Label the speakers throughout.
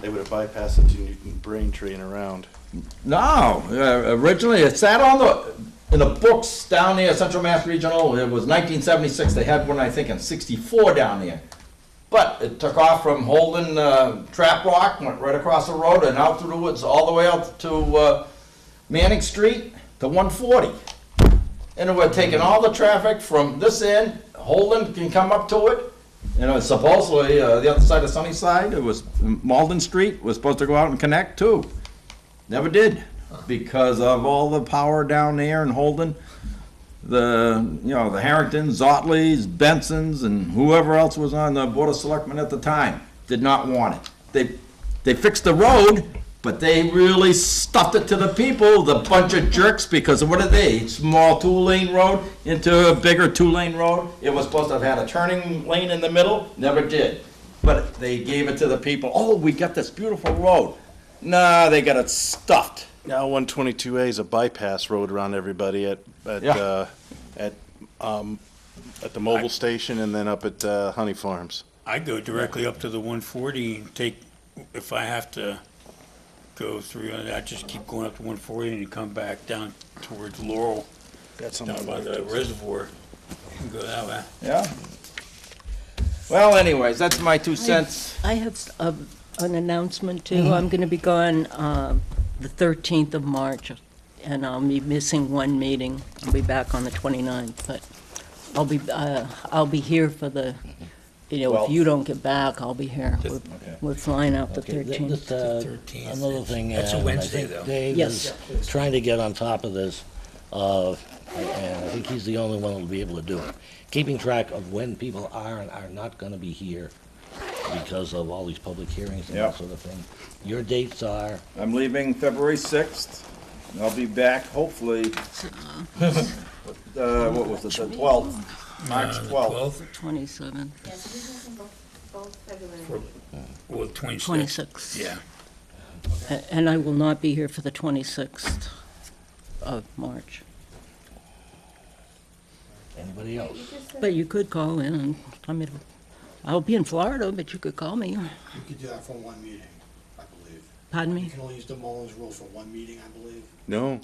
Speaker 1: They would have bypassed it to Newton Braintree and around.
Speaker 2: No, uh, originally, it sat on the, in the books down there, Central Mass Regional, it was nineteen seventy-six, they had one, I think, in sixty-four down there. But it took off from Holden, uh, Trap Rock, went right across the road and out through the woods, all the way out to, uh, Manning Street to one forty. And it would have taken all the traffic from this end, Holden can come up to it, you know, supposedly, uh, the other side of Sunnyside, it was, Malden Street was supposed to go out and connect too. Never did, because of all the power down there in Holden. The, you know, the Harringtons, Zotleys, Bensons, and whoever else was on the Board of Selectmen at the time, did not want it. They, they fixed the road, but they really stuffed it to the people, the bunch of jerks, because what are they? Small two-lane road into a bigger two-lane road? It was supposed to have had a turning lane in the middle, never did. But they gave it to the people, oh, we got this beautiful road. Nah, they got it stuffed.
Speaker 1: Now one twenty-two A is a bypass road around everybody at, at,
Speaker 2: Yeah.
Speaker 1: uh, at, um, at the mobile station and then up at, uh, Honey Farms.
Speaker 3: I go directly up to the one forty and take, if I have to go through, I just keep going up to one forty and you come back down towards Laurel,
Speaker 1: That's
Speaker 3: down by the reservoir. and Go that way.
Speaker 2: Yeah. Well, anyways, that's my two cents.
Speaker 4: I have um, an announcement too. I'm going to be gone uh, the 13th of March, and I'll be missing one meeting. I'll be back on the 29th, but I'll be, uh, I'll be here for the, you know, if
Speaker 2: Well-
Speaker 4: you don't get back, I'll be here. We're-
Speaker 2: okay.
Speaker 4: We're flying out the
Speaker 5: Okay, th- this,
Speaker 4: 13th.
Speaker 5: uh,
Speaker 3: 13th.
Speaker 5: Another thing.
Speaker 3: That's a
Speaker 5: uh, I
Speaker 3: Wednesday,
Speaker 5: think
Speaker 3: though.
Speaker 5: Dave
Speaker 4: Yes.
Speaker 5: is trying to get on top of this, uh, and I think he's the only one that'll be able to do it. Keeping track of when people are and are not gonna be here because of all these public hearings and that
Speaker 2: Yeah.
Speaker 5: sort of thing. Your dates are,
Speaker 2: I'm leaving February sixth, and I'll be back hopefully, uh, what was it, the twelfth? March
Speaker 3: Uh,
Speaker 2: twelfth.
Speaker 4: 27,
Speaker 6: Yes, this is in both, both February.
Speaker 3: Well, twenty-six.
Speaker 4: 26.
Speaker 3: Yeah.
Speaker 4: A- And I will not be here for the 26th of March.
Speaker 5: anybody
Speaker 6: You
Speaker 5: else?
Speaker 6: just said-
Speaker 4: But you could call in and tell me, to- I'll be in Florida, but you could call me.
Speaker 7: You could do that for one meeting, I believe.
Speaker 4: Pardon
Speaker 7: You
Speaker 4: me?
Speaker 7: can only use the Mullins rule for one meeting, I believe.
Speaker 1: No,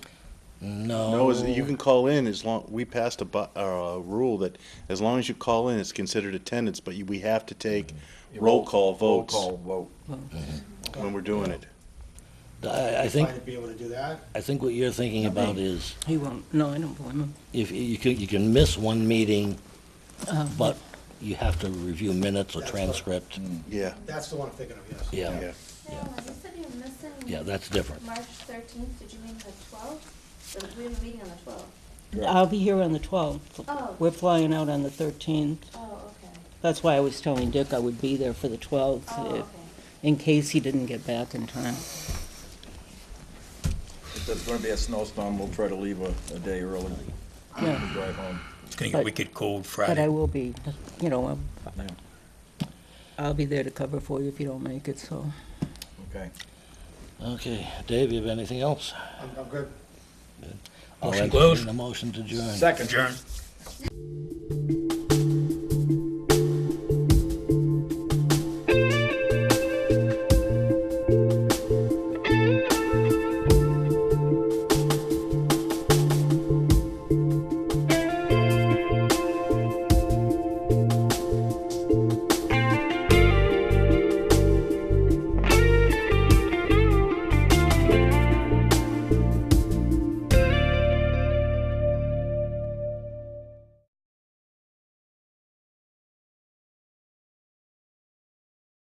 Speaker 5: No.
Speaker 1: no, is- you can call in as long, we passed a bu, uh, a rule that as long as you call in, it's considered attendance, but you, we have to take roll call votes
Speaker 2: Roll call vote.
Speaker 1: when we're doing it.
Speaker 5: I, I
Speaker 7: Trying
Speaker 5: think,
Speaker 7: to be able to do that.
Speaker 5: I think what you're thinking about is
Speaker 4: He won't, no, I don't blame him.
Speaker 5: if, you can, you can miss one meeting,
Speaker 4: Uh,
Speaker 5: but you have to review minutes or
Speaker 7: Um. That's right.
Speaker 5: transcript.
Speaker 1: Yeah,
Speaker 7: That's the one I'm thinking of, yes.
Speaker 5: Yeah,
Speaker 1: yeah.
Speaker 6: No, you said you're missing.
Speaker 5: yeah, that's different.
Speaker 6: March thirteenth, did you mean the twelfth? Or we have a meeting on the twelfth?
Speaker 4: I'll be here on the 12th.
Speaker 6: Oh.
Speaker 4: We're flying out on the 13th.
Speaker 6: Oh, okay.
Speaker 4: That's why I was telling Dick I would be there for the
Speaker 6: Oh,
Speaker 4: 12th,
Speaker 6: okay.
Speaker 4: if- in case he didn't get back in time.
Speaker 2: If there's gonna be a snowstorm, we'll try to leave a, a day early
Speaker 4: Yeah,
Speaker 2: to drive home.
Speaker 3: It's gonna get
Speaker 4: But-
Speaker 3: wicked cold
Speaker 4: But I
Speaker 3: Friday.
Speaker 4: will be, you know, I'm-
Speaker 2: Yeah.
Speaker 4: I'll be there to cover for you if you don't make it, so.
Speaker 2: Okay.
Speaker 5: Okay, Dave, you have anything else?
Speaker 7: I'm, I'm good.
Speaker 5: I'll
Speaker 3: Motion
Speaker 5: entertain
Speaker 3: closed.
Speaker 5: A motion to adjourn.
Speaker 2: Second.
Speaker 3: Adjourn.